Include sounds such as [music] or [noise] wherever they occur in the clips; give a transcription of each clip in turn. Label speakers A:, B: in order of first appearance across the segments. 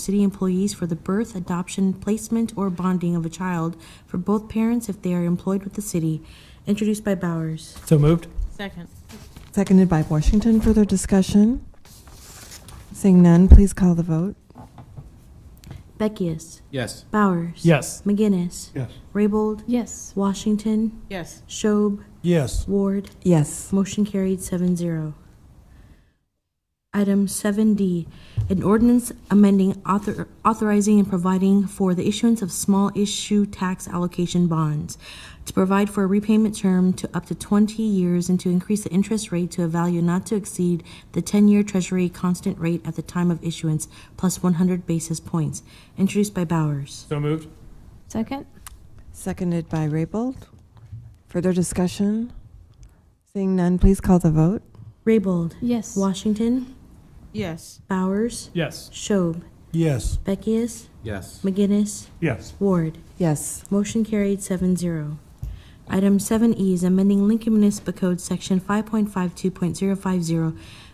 A: city employees for the birth, adoption, placement, or bonding of a child for both parents if they are employed with the city, introduced by Bowers.
B: So moved.
A: Second.
C: Seconded by Washington. Further discussion? Seeing none, please call the vote.
A: Beckius.
D: Yes.
A: Bowers.
B: Yes.
A: McGinnis.
D: Yes.
A: Raybold.
E: Yes.
A: Washington.
E: Yes.
A: Schob.
D: Yes.
A: Ward.
C: Yes.
A: Motion carried seven zero. Item seven D, an ordinance amending author, authorizing and providing for the issuance of small issue tax allocation bonds to provide for a repayment term to up to twenty years and to increase the interest rate to a value not to exceed the ten-year treasury constant rate at the time of issuance plus one hundred basis points, introduced by Bowers.
B: So moved.
E: Second?
C: Seconded by Raybold. Further discussion? Seeing none, please call the vote.
A: Raybold.
E: Yes.
A: Washington.
E: Yes.
A: Bowers.
B: Yes.
A: Schob.
D: Yes.
A: Beckius.
D: Yes.
A: McGinnis.
B: Yes.
A: Ward.
C: Yes.
A: Motion carried seven zero. Item seven E is amending Lincoln Municipal Code Section five point five two point zero five zero,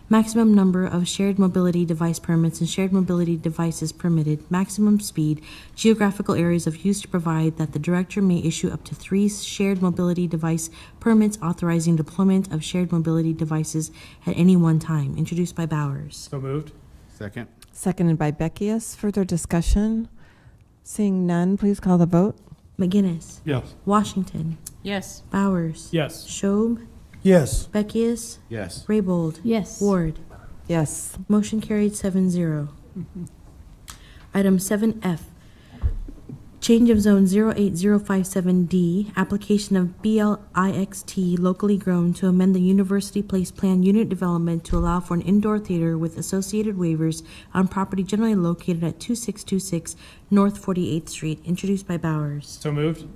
A: maximum number of shared mobility device permits and shared mobility devices permitted, maximum speed, geographical areas of use to provide that the director may issue up to three shared mobility device permits authorizing deployment of shared mobility devices at any one time, introduced by Bowers.
B: So moved.
D: Second.
C: Seconded by Beckius. Further discussion? Seeing none, please call the vote.
A: McGinnis,
B: Yes.
A: Washington,
E: Yes.
A: Bowers,
B: Yes.
A: Schob,
D: Yes.
A: Beckius,
D: Yes.
A: Raybold,
E: Yes.
A: Ward.
C: Yes.
A: Motion carried seven zero. Item seven F, change of zone zero eight zero five seven D, application of BLIXT locally grown to amend the University Place Plan unit development to allow for an indoor theater with associated waivers on property generally located at two six two six North Forty Eighth Street, introduced by Bowers.
B: So moved.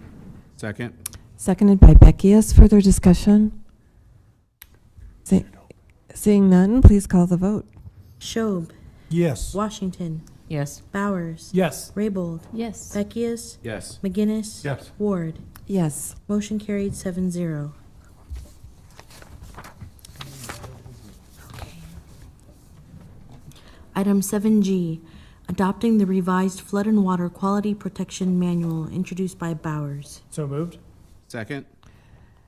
D: Second.
C: Seconded by Beckius. Further discussion? See- Seeing none, please call the vote.
A: Schob,
D: Yes.
A: Washington,
E: Yes.
A: Bowers,
B: Yes.
A: Raybold,
E: Yes.
A: Beckius,
D: Yes.
A: McGinnis.
B: Yes.
A: Ward.
C: Yes.
A: Motion carried seven zero. Item seven G, adopting the revised flood and water quality protection manual introduced by Bowers.
B: So moved.
D: Second.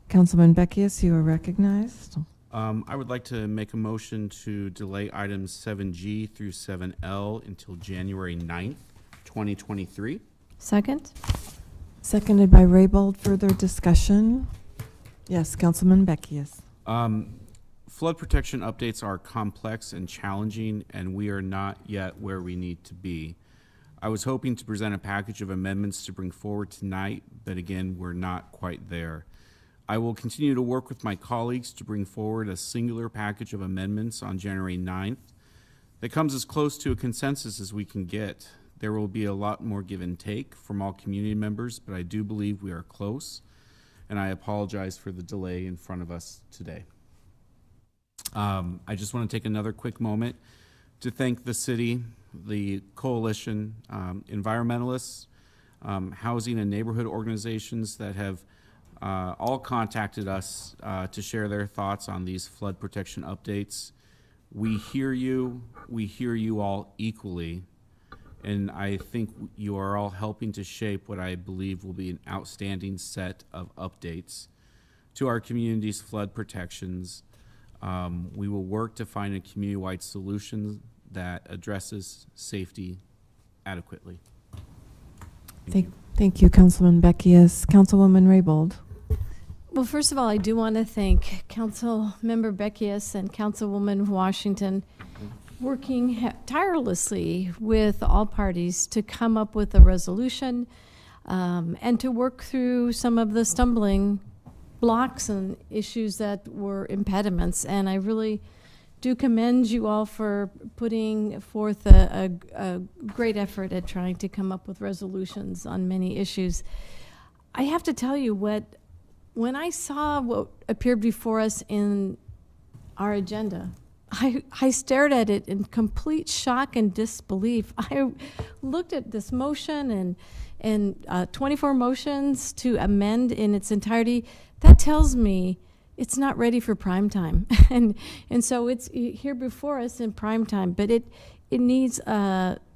C: Councilman Beckius, you are recognized.
D: Um, I would like to make a motion to delay items seven G through seven L until January 9th, twenty twenty-three.
E: Second?
C: Seconded by Raybold. Further discussion? Yes, Councilman Beckius.
D: Um, flood protection updates are complex and challenging, and we are not yet where we need to be. I was hoping to present a package of amendments to bring forward tonight, but again, we're not quite there. I will continue to work with my colleagues to bring forward a singular package of amendments on January 9th that comes as close to a consensus as we can get. There will be a lot more give and take from all community members, but I do believe we are close, and I apologize for the delay in front of us today. Um, I just want to take another quick moment to thank the city, the coalition, um, environmentalists, um, housing and neighborhood organizations that have uh, all contacted us uh, to share their thoughts on these flood protection updates. We hear you, we hear you all equally, and I think you are all helping to shape what I believe will be an outstanding set of updates to our community's flood protections. Um, we will work to find a community-wide solution that addresses safety adequately.
C: Thank, thank you, Councilman Beckius. Councilwoman Raybold.
E: Well, first of all, I do want to thank Councilmember Beckius and Councilwoman Washington working ha- tirelessly with all parties to come up with a resolution um, and to work through some of the stumbling blocks and issues that were impediments. And I really do commend you all for putting forth a, a, a great effort at trying to come up with resolutions on many issues. I have to tell you what when I saw what appeared before us in our agenda, I, I stared at it in complete shock and disbelief. [laughs] I looked at this motion and and uh, 24 motions to amend in its entirety. That tells me it's not ready for prime time, [laughs] and and so it's here before us in prime time. But it it needs uh, a